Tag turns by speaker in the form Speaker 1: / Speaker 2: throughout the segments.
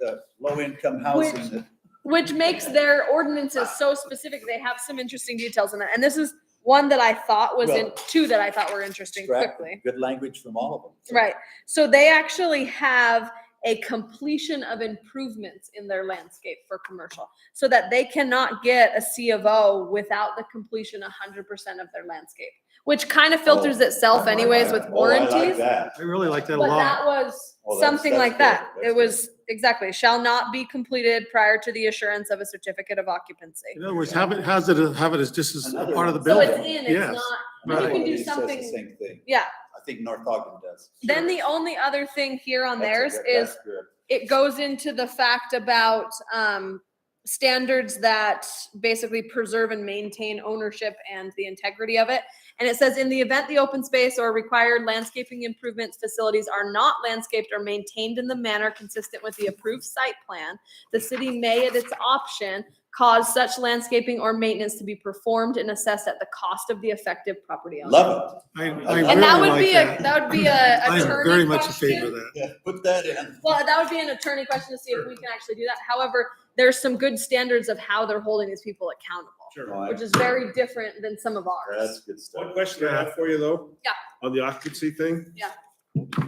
Speaker 1: the low-income housing
Speaker 2: Which-
Speaker 1: that.
Speaker 2: Which makes their ordinances so specific. They have some interesting details in it. And this is one that I thought was in,
Speaker 1: Well-
Speaker 2: two that I thought were interesting
Speaker 1: extract
Speaker 2: quickly.
Speaker 1: Good language from all of them. So
Speaker 2: Right. So they actually have a completion of improvements in their landscape for commercial so that they cannot get a C of O without the completion hundred percent of their landscape, which kind of filters itself anyways with
Speaker 1: Oh, I like
Speaker 2: warranties.
Speaker 1: that.
Speaker 3: I really like that a
Speaker 2: But
Speaker 3: lot.
Speaker 2: that was
Speaker 1: Oh, that's-
Speaker 2: something
Speaker 1: that's
Speaker 2: like
Speaker 1: good.
Speaker 2: that.
Speaker 1: That's
Speaker 2: It
Speaker 1: good.
Speaker 2: was exactly, shall not be completed prior to the assurance of a certificate of occupancy.
Speaker 3: In other words, have it, has it, have it as just as a part of the
Speaker 2: So it's
Speaker 3: building.
Speaker 2: in,
Speaker 3: yes.
Speaker 2: it's not,
Speaker 1: Another
Speaker 3: Right.
Speaker 1: one
Speaker 2: You can do
Speaker 1: of these says the
Speaker 2: something-
Speaker 1: Same thing.
Speaker 2: yeah.
Speaker 1: I think North Ogden does.
Speaker 2: Then the only other thing here on
Speaker 1: That's a
Speaker 2: theirs
Speaker 1: good-
Speaker 2: is
Speaker 1: that's good.
Speaker 2: it goes into the fact about um, standards that basically preserve and maintain ownership and the integrity of it. And it says, in the event the open space or required landscaping improvements facilities are not landscaped or maintained in the manner consistent with the approved site plan, the city may at its option cause such landscaping or maintenance to be performed and assessed at the cost of the affective property owner.
Speaker 1: Love
Speaker 3: I, I
Speaker 2: And that
Speaker 3: really
Speaker 2: would be
Speaker 3: like
Speaker 2: a, that would be a
Speaker 3: I am
Speaker 2: attorney
Speaker 3: very much in
Speaker 2: question.
Speaker 3: favor of that.
Speaker 1: it. Yeah, Put that in.
Speaker 2: Well, that would be an attorney question to see if we can actually do that. However, there's some good standards of how they're holding these people accountable,
Speaker 1: No, I-
Speaker 2: which is very different than some of
Speaker 1: That's
Speaker 2: ours.
Speaker 1: good
Speaker 4: One
Speaker 1: stuff.
Speaker 4: question I have for you though.
Speaker 2: Yeah.
Speaker 4: On the occupancy thing.
Speaker 2: Yeah.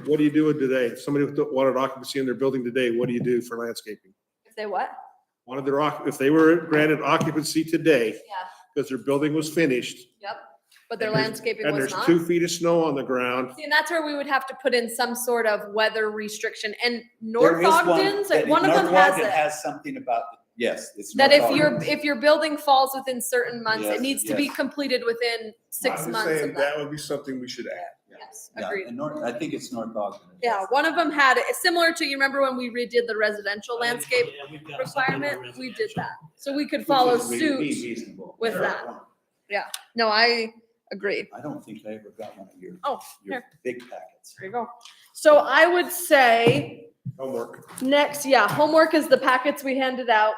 Speaker 4: What do you do with today? If somebody wanted occupancy in their building today, what do you do for landscaping?
Speaker 2: If they what?
Speaker 4: Wanted their, occ- if they were granted occupancy today,
Speaker 2: Yeah,
Speaker 4: because their building was finished,
Speaker 2: yep. But their
Speaker 4: And there's-
Speaker 2: landscaping
Speaker 4: and
Speaker 2: was
Speaker 4: there's
Speaker 2: not.
Speaker 4: two feet of snow on the ground,
Speaker 2: See, and that's where we would have to put in some sort of weather restriction and
Speaker 1: There
Speaker 2: North
Speaker 1: is one
Speaker 2: Ogden's,
Speaker 1: that-
Speaker 2: like one of
Speaker 1: North
Speaker 2: them has
Speaker 1: Ogden
Speaker 2: it.
Speaker 1: Has something about, yes, it's.
Speaker 2: That
Speaker 1: North
Speaker 2: if your,
Speaker 1: Ogden's.
Speaker 2: if your building falls within certain months,
Speaker 1: Yes,
Speaker 2: it needs to be
Speaker 1: yes.
Speaker 2: completed within
Speaker 4: I'm
Speaker 2: six
Speaker 4: just
Speaker 2: months
Speaker 4: saying
Speaker 2: of that.
Speaker 4: That would be something we should add.
Speaker 2: Yes,
Speaker 1: Yeah,
Speaker 2: agreed.
Speaker 1: and North, I think it's North Ogden.
Speaker 2: Yeah, one of them had, it similar to, you remember when we redid the residential landscape? requirement, we did that. So we could follow suit. with that. No, I agree.
Speaker 1: I don't think I ever got one of your,
Speaker 2: Oh,
Speaker 1: your
Speaker 2: here,
Speaker 1: big packets.
Speaker 2: there you go. So I would say
Speaker 4: Homework.
Speaker 2: next, yeah, homework is the packets we handed out.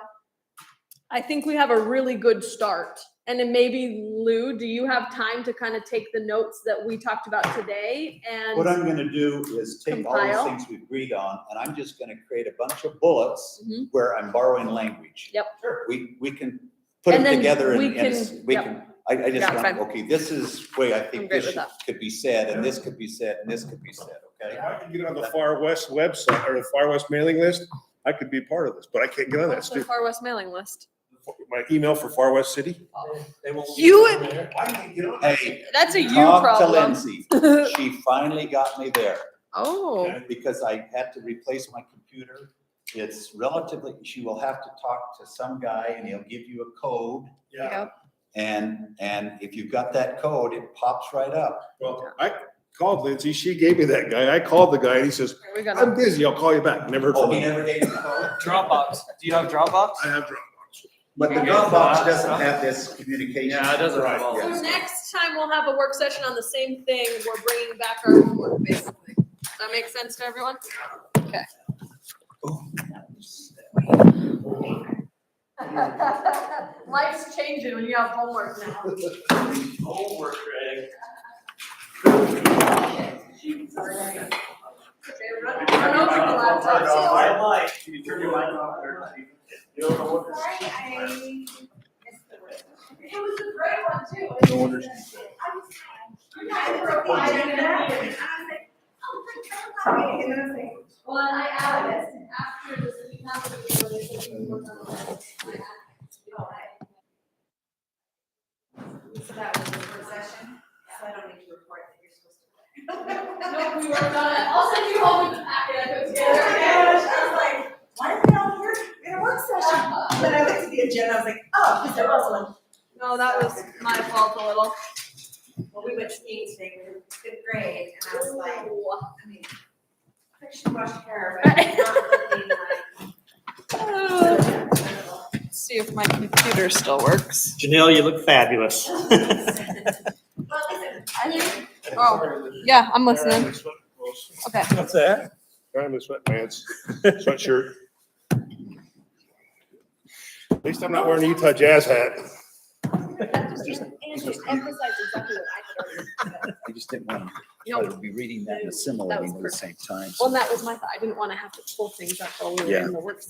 Speaker 2: I think we have a really good start. And then maybe Lou, do you have time to kind of take the notes that we talked about today
Speaker 1: What
Speaker 2: and?
Speaker 1: I'm gonna do is take all these
Speaker 2: Compile.
Speaker 1: things we agreed on, and I'm just gonna create a bunch of bullets
Speaker 2: Mhm.
Speaker 1: where I'm borrowing language.
Speaker 2: Yep.
Speaker 1: We, we can put them
Speaker 2: And then
Speaker 1: together
Speaker 2: we
Speaker 1: and, and s-
Speaker 2: can-
Speaker 1: we
Speaker 2: yep.
Speaker 1: can, I, I
Speaker 2: Yeah,
Speaker 1: just want,
Speaker 2: fine.
Speaker 1: okay, this is way I think
Speaker 2: great
Speaker 1: this
Speaker 2: with
Speaker 1: should- could be said, and this could be said, and this could be said, okay?
Speaker 4: If I could get on the Far West website or the Far West mailing list, I could be part of this, but I can't get on that
Speaker 2: What's the
Speaker 4: stupid,
Speaker 2: Far West mailing list?
Speaker 4: my email for Far West City.
Speaker 2: You,
Speaker 4: I can't get on.
Speaker 1: Hey,
Speaker 2: that's a you
Speaker 1: talk to
Speaker 2: problem.
Speaker 1: Lindsay. She finally got me there.
Speaker 2: Oh,
Speaker 1: because I had to replace my computer. It's relatively, she will have to talk to some guy and he'll give you a code.
Speaker 2: yeah.
Speaker 1: And, and if you've got that code, it pops right up.
Speaker 4: Well, I called Lindsay, she gave me that guy, I called the guy, and he says,
Speaker 2: Here we
Speaker 4: I'm
Speaker 2: go.
Speaker 4: busy, I'll call you back, never heard
Speaker 1: Oh,
Speaker 4: from
Speaker 1: he
Speaker 4: him.
Speaker 1: never gave you the code?
Speaker 5: Dropbox. Do you have Dropbox?
Speaker 4: I have,
Speaker 1: But the
Speaker 5: Yeah.
Speaker 1: Dropbox doesn't have this communication.
Speaker 5: Yeah, it doesn't have all
Speaker 2: So
Speaker 1: Yes.
Speaker 2: next time we'll have a work session on the same thing. We're bringing back our homework, basically. Does that make sense to everyone? Okay.
Speaker 1: Oh.
Speaker 2: Life's changing when you have homework now.
Speaker 6: Oh,
Speaker 5: Homework, Greg.
Speaker 2: Okay, run- run over the
Speaker 7: Oh
Speaker 2: laptop.
Speaker 5: Can you turn your mic off? or- You don't know what this-
Speaker 7: Sorry, I missed the word.
Speaker 2: It was a great one too.
Speaker 1: No wonder she-
Speaker 7: I'm sorry. You guys were applying and I was like, oh, for God's sake. And I was like,
Speaker 2: Well, and I added it after this, we have to do this, we work on this. I added it. You know, I-
Speaker 7: so that was the first session, so I don't need to report that you're supposed to.
Speaker 2: No, we worked on it. I'll send you home with the packet I put together.
Speaker 7: I was like, why is it all work, in a work session? But I looked at the agenda, I was like, oh, because there was one.
Speaker 2: No, that was my fault a little.
Speaker 7: Well, we went skiing today, we were fifth grade, and I was like, I mean, I should wash hair, but it's not looking like.
Speaker 2: See if my computer still works.
Speaker 6: Janelle, you look fabulous.
Speaker 7: Well, listen,
Speaker 2: Oh, yeah, I'm listening. Okay.
Speaker 6: What's that?
Speaker 4: I'm in sweatpants, sweatshirt. At least I'm not wearing a Utah Jazz hat.
Speaker 2: And just emphasize exactly what I heard.
Speaker 1: I just didn't want to
Speaker 2: No.
Speaker 1: try to be reading that and assimilating at the same time. so-
Speaker 2: Well, and that was my thought. I didn't want to have to pull things up while we were in the work